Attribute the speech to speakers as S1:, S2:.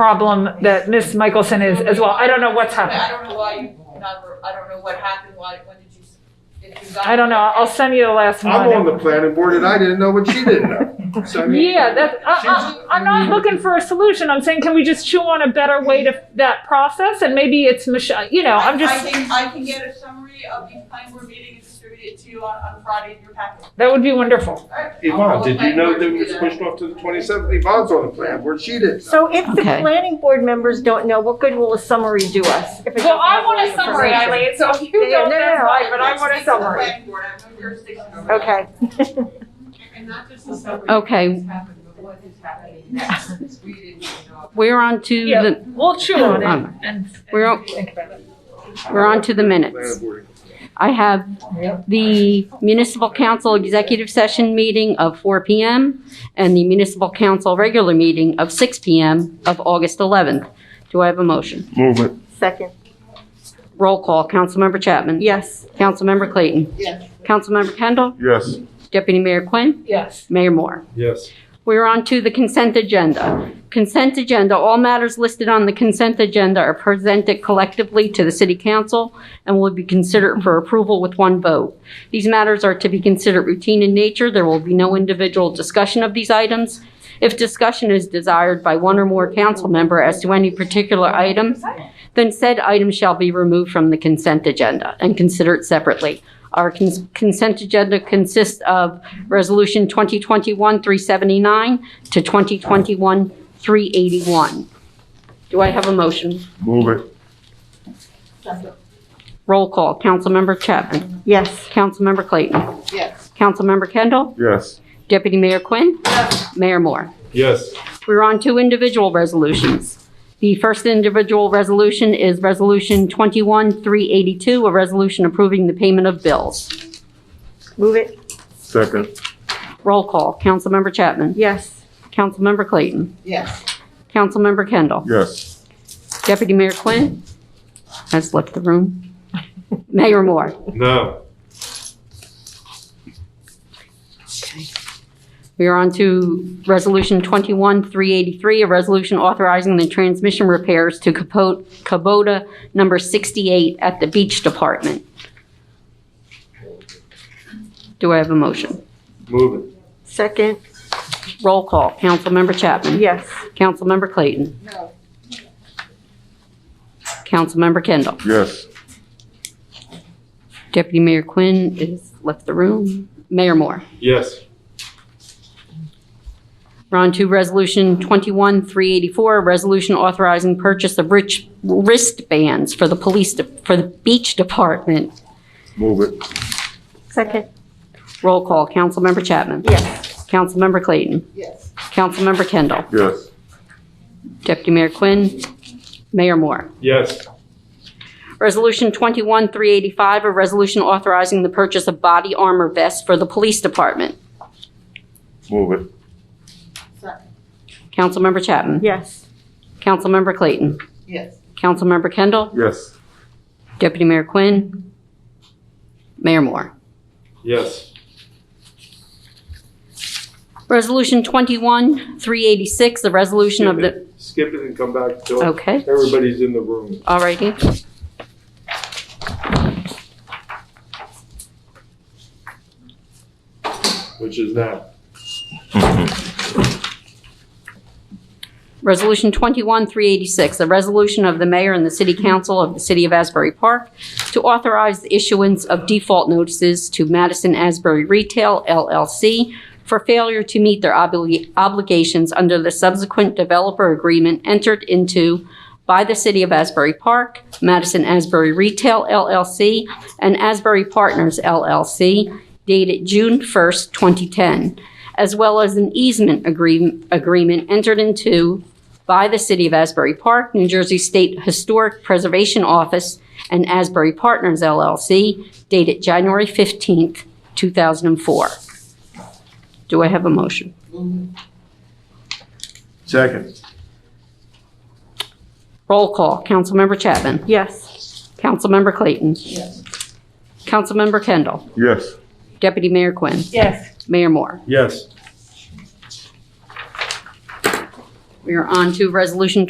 S1: problem that Ms. Michelson is as well. I don't know what's
S2: I
S1: happened.
S2: don't know why you, never- I don't know what happened, why, when did you, if you got.
S1: I don't know. I'll send you the last one.
S3: I'm on the planning board and I didn't know what she didn't know. So, I mean,
S1: Yeah, that, I, I, I'm not
S4: Mm-hmm.
S1: looking for a solution. I'm saying, can we just chew on a better way to that process? And maybe it's Michelle, you know, I'm
S2: I
S1: just,
S2: can, I can get a summary of the planning board meeting and distribute it to you on, on Friday in your packet.
S1: that would be wonderful.
S2: All right.
S3: Yvonne, did you know that it was
S2: I'll- I'll-
S3: pushed off to the twenty-seventh? Yvonne's on the planning board, she didn't know.
S4: So if the
S5: Okay.
S4: planning board members don't know, what good will a summary do us? If it
S1: Well,
S4: doesn't
S1: I
S4: have
S1: want
S4: any
S1: a summary,
S4: information?
S1: Eileen, so if you
S4: Yeah, yeah,
S1: don't,
S4: no,
S1: that's
S4: no,
S1: fine, but I want a
S2: Let's stick to the
S1: summary.
S2: planning board. I have no jurisdiction over that.
S4: Okay.
S6: And not just the
S1: Oh,
S6: summary.
S5: Okay.
S6: What's happened, but what is happening next? We didn't know.
S5: We're on to
S1: Yeah,
S5: the,
S1: we'll chew on it
S5: Um,
S1: and
S5: we're
S1: and
S5: o-
S1: think about it.
S5: we're on to the
S3: Planning
S5: minutes.
S3: board.
S5: I have the municipal council executive session meeting of 4 PM and the municipal council regular meeting of 6 PM of August 11th. Do I have a motion?
S3: Move it.
S4: Second,
S5: Roll call, Councilmember Chapman.
S4: yes.
S5: Councilmember Clayton.
S2: Yes.
S5: Councilmember Kendall.
S3: Yes.
S5: Deputy Mayor Quinn.
S1: Yes.
S5: Mayor Moore.
S3: Yes.
S5: We're on to the consent agenda. Consent agenda, all matters listed on the consent agenda are presented collectively to the city council and will be considered for approval with one vote. These matters are to be considered routine in nature. There will be no individual discussion of these items. If discussion is desired by one or more council member as to any particular item, then said item shall be removed from the consent agenda and considered separately. Our cons- consent agenda consists of Resolution 2021-379 to 2021-381. Do I have a motion?
S3: Move it.
S5: Roll call. Councilmember Chapman.
S4: Yes.
S5: Councilmember Clayton.
S2: Yes.
S5: Councilmember Kendall.
S3: Yes.
S5: Deputy Mayor Quinn. Mayor Moore.
S3: Yes.
S5: We're on to individual resolutions. The first individual resolution is Resolution 21-382, a resolution approving the payment of bills.
S4: Move it,
S3: Second.
S5: Roll call. Councilmember Chapman.
S4: yes.
S5: Councilmember Clayton.
S2: Yes.
S5: Councilmember Kendall.
S3: Yes.
S5: Deputy Mayor Quinn has left the room. Mayor Moore.
S3: No.
S5: We are on to Resolution 21-383, a resolution authorizing the transmission repairs to Capo- Kubota number 68 at the Beach Department. Do I have a motion?
S3: Move it.
S4: Second,
S5: Roll call. Councilmember Chapman.
S4: yes.
S5: Councilmember Clayton.
S2: No.
S5: Councilmember Kendall.
S3: Yes.
S5: Deputy Mayor Quinn is left the room. Mayor Moore.
S3: Yes.
S5: We're on to Resolution 21-384, a resolution authorizing purchase of rich wristbands for the police, de- for the beach department.
S3: Move it.
S4: Second,
S5: Roll call, Councilmember Chapman.
S4: yes.
S5: Councilmember Clayton.
S2: Yes.
S5: Councilmember Kendall.
S3: Yes.
S5: Deputy Mayor Quinn. Mayor Moore.
S3: Yes.
S5: Resolution 21-385, a resolution authorizing the purchase of body armor vests for the police department.
S3: Move it.
S5: Councilmember Chapman.
S4: Yes.
S5: Councilmember Clayton.
S2: Yes.
S5: Councilmember Kendall.
S3: Yes.
S5: Deputy Mayor Quinn. Mayor Moore.
S3: Yes.
S5: Resolution 21-386, the resolution of the,
S3: Skip it and come back till
S5: okay,
S3: everybody's in the room.
S5: all righty.
S3: Which is now.
S5: Resolution 21-386, the resolution of the mayor and the city council of the city of Asbury Park to authorize the issuance of default notices to Madison Asbury Retail LLC for failure to meet their obli- obligations under the subsequent developer agreement entered into by the city of Asbury Park, Madison Asbury Retail LLC, and Asbury Partners LLC dated June 1st, 2010, as well as an easement agreement, agreement entered into by the City of Asbury Park, New Jersey State Historic Preservation Office, and Asbury Partners LLC dated January 15th, 2004. Do I have a motion?
S2: Mm-hmm,
S3: Second.
S5: Roll call. Councilmember Chapman.
S4: Yes.
S5: Councilmember Clayton.
S2: Yes.
S5: Councilmember Kendall.
S3: Yes.
S5: Deputy Mayor Quinn.
S1: Yes.
S5: Mayor Moore.
S3: Yes.
S5: We are on to Resolution